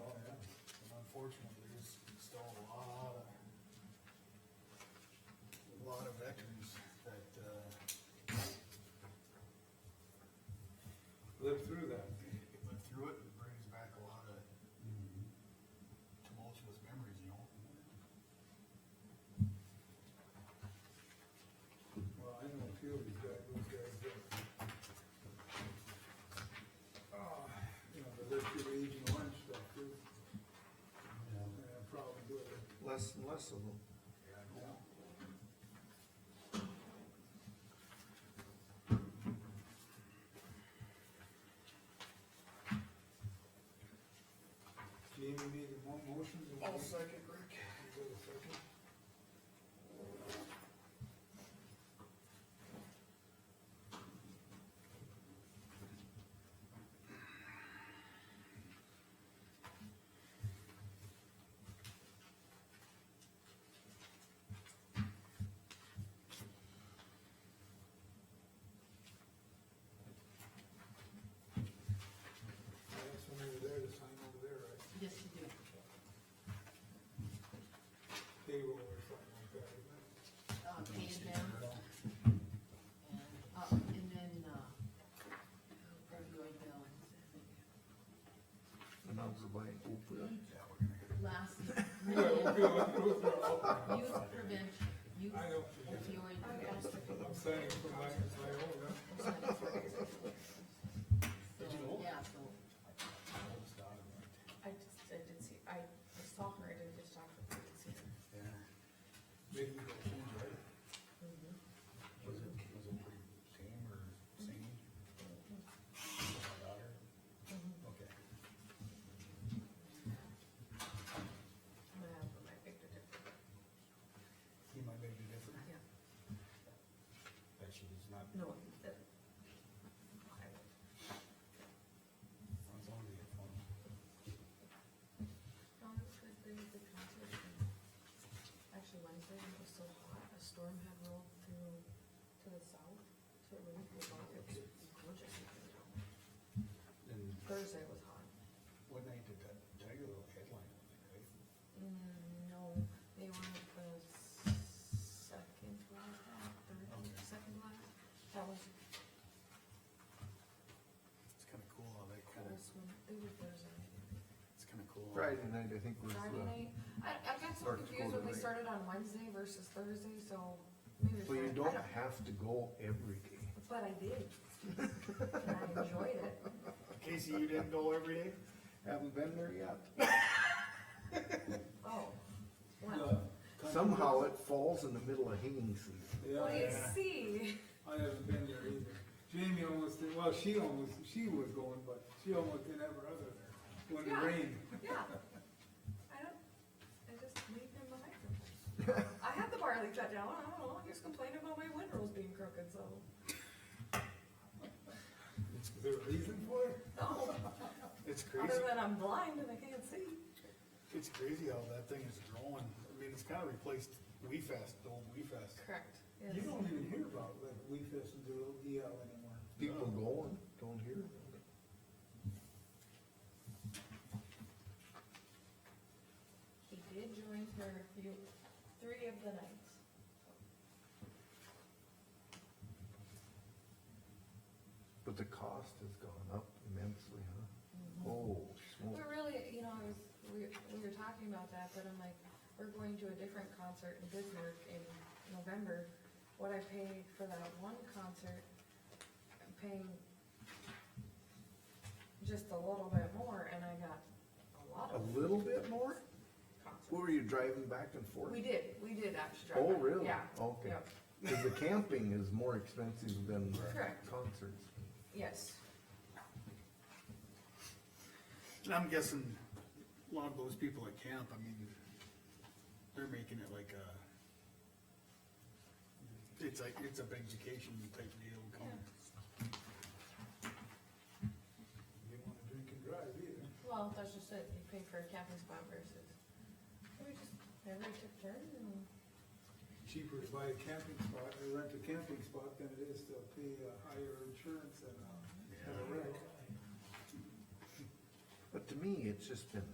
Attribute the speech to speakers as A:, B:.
A: Oh, uh,
B: through that.
A: It went through it, it brings back a lot of tumultuous memories, you know?
B: Well, I know a few of these guys, those guys that. ah, You know, the lift your age and lunch stuff too. And I probably do it.
C: Less and less of them.
A: Yeah, I know.
B: Yeah. Jamie made a mo- motion. and we-
A: second, Rick.
B: we got a second. I have some over there to sign over there, right?
D: Yes, you do.
B: Payroll or something like that, isn't it?
D: Uh, pay it down, and, uh, and then, uh, February bill.
C: And now we're buying Oprah.
A: Yeah, we're gonna get,
D: Last,
B: Yeah, we'll
D: minute,
B: go through it all.
D: youth prevention, youth
B: I know.
D: opioid catastrophe.
B: I'm saying it from my, my own, huh?
D: So, yeah, so,
A: all this out of it.
E: I just, I did see, I I saw her, I didn't just talk to her, I didn't see her.
A: Yeah.
B: Maybe you go change, right?
A: Was it, was it pretty tame or sane?
E: Mm-hmm.
A: My daughter? Okay.
E: I'm gonna have my picture different.
A: He might make a difference.
E: Yeah.
A: That she was not,
E: No, that. I will.
A: I was on the phone.
E: No, oh, it was good, they did the concert. and Actually Wednesday, it was so hot, a storm had rolled through to the south, so it really blew out, it was gorgeous.
A: And
E: Thursday was hot.
A: what night did that, Tiger Lily headline, I think, right?
E: Mm, no, they were the second last, third,
A: Okay.
E: second last, that was
A: It's kinda cool how that kinda,
E: This one, they were Thursday.
A: it's kinda cool. how-
C: Friday night, I think was uh,
E: Friday
C: the,
E: night, I, I got so
C: North
E: confused when
C: Dakota
E: we
C: night.
E: started on Wednesday versus Thursday, so maybe.
C: so you
E: Friday- I
C: don't have to go every day.
E: But I did. And I enjoyed it.
A: Casey, you didn't go every day?
C: Haven't been there yet.
E: Oh. What?
C: Somehow it falls in the middle of hanging season.
B: Yeah,
E: Well, you
B: yeah.
E: see,
B: I haven't been there either. Jamie almost, did- well, she almost, she was going, but she almost didn't have her other there when it
E: Yeah.
B: rained.
E: yeah. I don't, I just leave them behind sometimes. I had the barley cut down, I don't know, I was complaining about my windrows being crooked, so.
B: Is there a reason for it?
E: No,
A: It's
E: other
A: crazy,
E: than I'm blind and I can't see.
A: it's crazy how that thing is growing, I mean, it's kinda replaced We Fest, the old We Fest.
E: Correct.
B: You don't even hear about like we fest and do
A: E
B: DL anymore.
C: People going, don't hear.
E: He did join her few, three of the nights.
C: But the cost has gone up immensely, huh? Oh, smoke.
E: But really, you know, I was, we, we were talking about that, but I'm like, we're going to a different concert in Bismarck in November. What I pay for that one concert, I'm paying just a little bit more and I got a lot of
C: A little bit more?
E: concerts.
C: Were you driving back and forth?
E: We did, we did actually drive.
C: Oh,
E: by.
C: really?
E: Yeah.
C: Okay.
E: Yep.
C: Cause the camping is more expensive than
E: Correct.
C: concerts.
E: Yes,
A: And I'm guessing a lot of those people at camp, I mean, they're making it like a, it's like, it's a big vacation type deal coming.
B: You don't wanna drink and drive either.
E: well, that's just it, you pay for a camping spot versus, we just, everybody took turns and.
B: Cheaper to buy a camping spot or rent a camping spot than it is to pay a higher insurance and, uh, have a wreck.
C: But to me, it's just been